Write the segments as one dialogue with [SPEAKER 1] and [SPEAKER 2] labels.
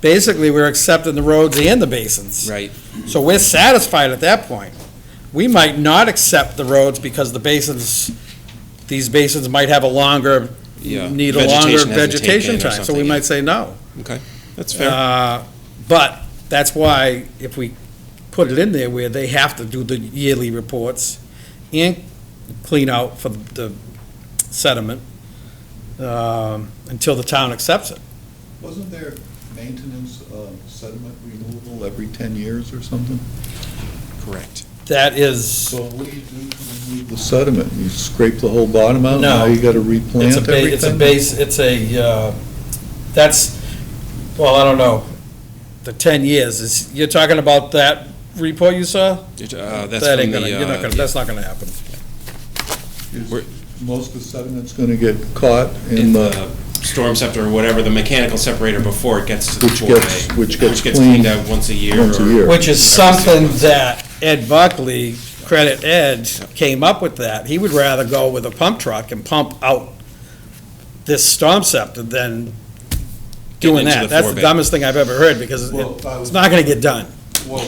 [SPEAKER 1] basically, we're accepting the roads and the basins.
[SPEAKER 2] Right.
[SPEAKER 1] So we're satisfied at that point. We might not accept the roads because the basins, these basins might have a longer,
[SPEAKER 2] Yeah.
[SPEAKER 1] need a longer
[SPEAKER 2] Vegetation hasn't
[SPEAKER 1] vegetation
[SPEAKER 2] taken or
[SPEAKER 1] time, so
[SPEAKER 2] something
[SPEAKER 1] we
[SPEAKER 2] yet.
[SPEAKER 1] might say no.
[SPEAKER 2] Okay, that's fair.
[SPEAKER 1] Uh, But that's why if we put it in there where they have to do the yearly reports and clean out for the sediment um, until the town accepts it.
[SPEAKER 3] Wasn't there maintenance of sediment removal every 10 years or something?
[SPEAKER 2] Correct.
[SPEAKER 1] That is,
[SPEAKER 3] So what do you do to remove the sediment? You scrape the whole bottom out?
[SPEAKER 1] No.
[SPEAKER 3] Now you got
[SPEAKER 1] it's
[SPEAKER 3] to
[SPEAKER 1] a,
[SPEAKER 3] replant
[SPEAKER 1] ba- it's a
[SPEAKER 3] everything?
[SPEAKER 1] base, it's a, uh, that's, well, I don't know, the 10 years is, you're talking about that report you saw?
[SPEAKER 2] It, uh, That's
[SPEAKER 1] That
[SPEAKER 2] from
[SPEAKER 1] ain't gonna,
[SPEAKER 2] the,
[SPEAKER 1] you're not
[SPEAKER 2] uh,
[SPEAKER 1] gonna, that's not gonna happen.
[SPEAKER 3] Is- Most of the sediment's going to get caught in
[SPEAKER 2] in
[SPEAKER 3] the,
[SPEAKER 2] the storm scepter or whatever, the mechanical separator before it gets to the
[SPEAKER 3] Which
[SPEAKER 2] four
[SPEAKER 3] gets-
[SPEAKER 2] bay.
[SPEAKER 3] which gets
[SPEAKER 2] cleaned
[SPEAKER 3] cleaned
[SPEAKER 2] out once a year.
[SPEAKER 3] once a
[SPEAKER 2] or-
[SPEAKER 3] year.
[SPEAKER 1] Which is
[SPEAKER 2] Every six
[SPEAKER 1] something
[SPEAKER 2] months.
[SPEAKER 1] that Ed Buckley, credit Ed, came up with that. He would rather go with a pump truck and pump out this storm scepter than doing
[SPEAKER 2] into the
[SPEAKER 1] that. That's
[SPEAKER 2] four
[SPEAKER 1] the
[SPEAKER 2] bay.
[SPEAKER 1] dumbest thing I've ever heard, because
[SPEAKER 3] Well,
[SPEAKER 1] it-
[SPEAKER 3] I was-
[SPEAKER 1] it's not gonna get done.
[SPEAKER 3] well,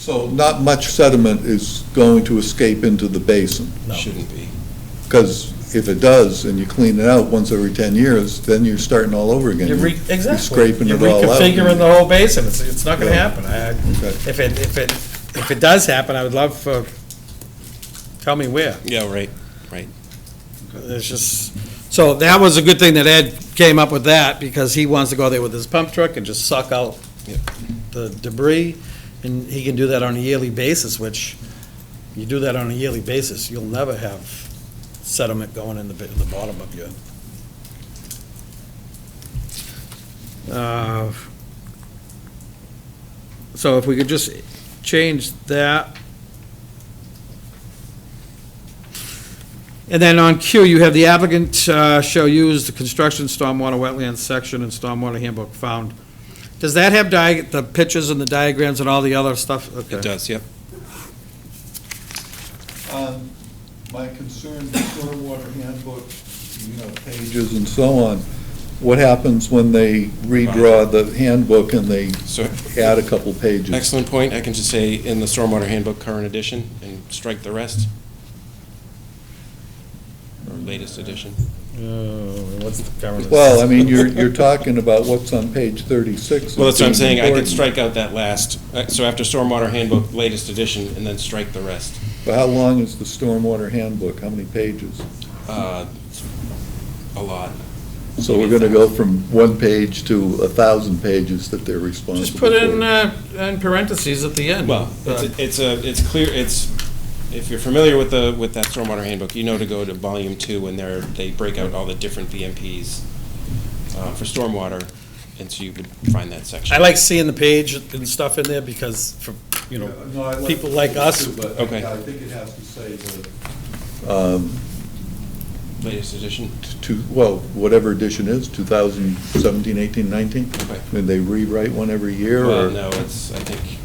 [SPEAKER 3] so not much sediment is going to escape into the basin.
[SPEAKER 1] No.
[SPEAKER 2] Shouldn't be.
[SPEAKER 3] Because if it does, and you clean it out once every 10 years, then you're starting all over again.
[SPEAKER 1] You're re-
[SPEAKER 3] You're
[SPEAKER 1] Exactly.
[SPEAKER 3] scraping it all out.
[SPEAKER 1] You're reconfiguring the whole basin, it's, it's not gonna
[SPEAKER 3] Yeah.
[SPEAKER 1] happen. I-
[SPEAKER 3] Okay.
[SPEAKER 1] If it, if it, if it does happen, I would love for, tell me where.
[SPEAKER 2] Yeah, right.
[SPEAKER 1] It's just, so that was a good thing that Ed came up with that, because he wants to go there with his pump truck and just suck out
[SPEAKER 2] Yep.
[SPEAKER 1] the debris, and he can do that on a yearly basis, which, you do that on a yearly basis, you'll never have sediment going in the, bi- the bottom of your. Uh, So if we could just change that. And then on Q, you have the applicant uh, shall use the construction stormwater wetlands section and stormwater handbook found. Does that have diag, the pictures and the diagrams and all the other stuff?
[SPEAKER 2] It
[SPEAKER 1] Okay.
[SPEAKER 2] does, yep.
[SPEAKER 3] Um, My concern, the stormwater handbook, you know, pages and so on, what happens when they redraw the handbook and they
[SPEAKER 2] So
[SPEAKER 3] add a couple pages?
[SPEAKER 2] excellent point. I can just say in the stormwater handbook, current edition, and strike the rest. Or latest edition.
[SPEAKER 1] Uh, What's the current?
[SPEAKER 3] Well, I mean, you're, you're talking about what's on page 36.
[SPEAKER 2] Well, that's what I'm
[SPEAKER 3] It's
[SPEAKER 2] saying. I could
[SPEAKER 3] important.
[SPEAKER 2] strike out that last. Uh, So after stormwater handbook, latest edition, and then strike the rest.
[SPEAKER 3] But how long is the stormwater handbook? How many pages?
[SPEAKER 2] Uh, A lot.
[SPEAKER 3] So we're going to go from one page to a thousand pages that they're responsible
[SPEAKER 1] Just put in,
[SPEAKER 3] for.
[SPEAKER 1] uh, in parentheses at the end. Uh,
[SPEAKER 2] Well, it's,
[SPEAKER 3] Uh,
[SPEAKER 2] a- it's a, it's clear, it's, if you're familiar with the, with that stormwater handbook, you know to go to volume two when they're, they break out all the different BMPs uh, for stormwater, and so you would find that section.
[SPEAKER 1] I like seeing the page and stuff in there because, for, you know,
[SPEAKER 3] No, I
[SPEAKER 1] people like us-
[SPEAKER 3] too, but
[SPEAKER 2] Okay.
[SPEAKER 3] I think it has to say the, um,
[SPEAKER 2] Latest edition,
[SPEAKER 3] two, well, whatever edition is, 2017, 18, 19?
[SPEAKER 2] Okay.
[SPEAKER 3] When they rewrite one every year,
[SPEAKER 2] well,
[SPEAKER 3] or?
[SPEAKER 2] no, it's, I think,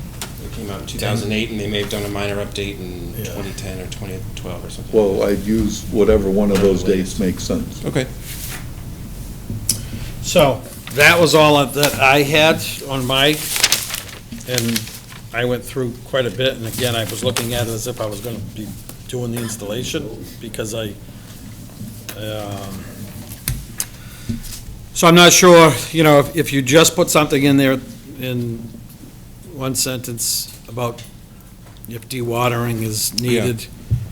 [SPEAKER 2] it came out in two thousand eight, and they may have done a minor update in
[SPEAKER 1] Yeah.
[SPEAKER 2] twenty ten or twenty twelve or something.
[SPEAKER 3] Well, I'd use whatever one of those dates makes sense.
[SPEAKER 2] Okay,
[SPEAKER 1] so, that was all of- that I had on my, and I went through quite a bit, and again, I was looking at it as if I was gonna be doing the installation, because I, um, so I'm not sure, you know, if- if you just put something in there in one sentence about if dewatering is needed,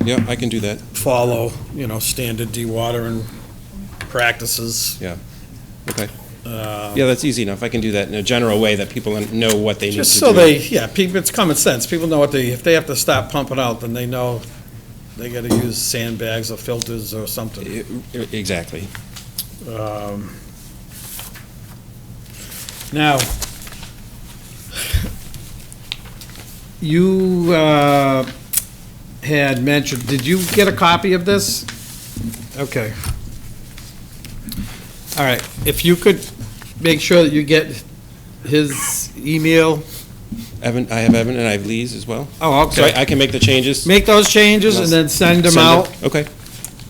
[SPEAKER 2] yeah, I can do that,
[SPEAKER 1] follow, you know, standard dewatering practices.
[SPEAKER 2] okay.
[SPEAKER 1] uh,
[SPEAKER 2] Yeah, that's easy enough. I can do that in a general way that people know what they need to do.
[SPEAKER 1] Just so they, yeah, people, it's common sense. People know what they, if they have to stop pumping out, then they know they gotta use sandbags or filters or something.
[SPEAKER 2] E- e- Exactly.
[SPEAKER 1] Um, Now, you uh, had mentioned, did you get a copy of this? Okay. All right, if you could make sure that you get his email.
[SPEAKER 2] Evan, I have Evan and I have Lee's as well.
[SPEAKER 1] Oh,
[SPEAKER 2] So
[SPEAKER 1] okay.
[SPEAKER 2] I I can make the changes?
[SPEAKER 1] Make those changes and then send them out.
[SPEAKER 2] Okay,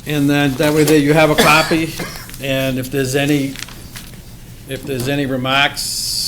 [SPEAKER 1] And then, that way there you have a copy, and if there's any, if there's any remarks